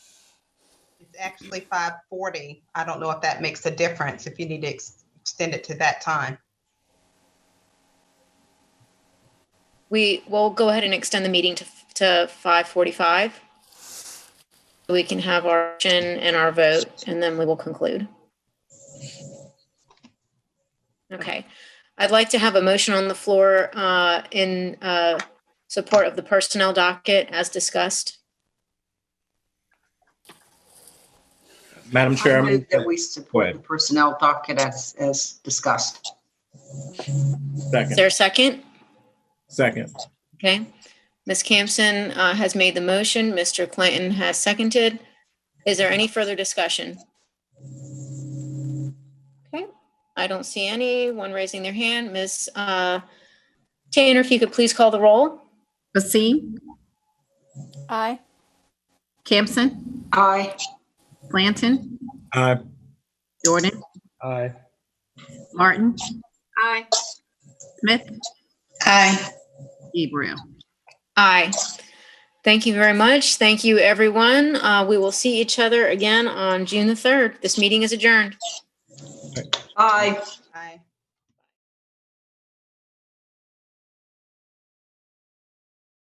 it's actually five forty. I don't know if that makes a difference, if you need to ex- extend it to that time. We will go ahead and extend the meeting to, to five forty-five. We can have our action and our vote, and then we will conclude. Okay, I'd like to have a motion on the floor uh, in uh, support of the personnel docket as discussed. Madam Chair, I I move move that we Go support ahead. the personnel docket as, as discussed. Is second, there a second? second. Okay. Ms. Campson uh, has made the motion. Mr. Clinton has seconded. Is there any further discussion? Okay, I don't see anyone raising their hand. Ms. uh, Tanner, if you could please call the roll? Basim, Aye. Campson, Aye. Blanton, Aye. Jordan, Aye. Martin, Aye. Smith, Aye. Gabriel. Aye. Thank you very much. Thank you, everyone. Uh, We will see each other again on June the 3rd. This meeting is adjourned. Aye. Aye.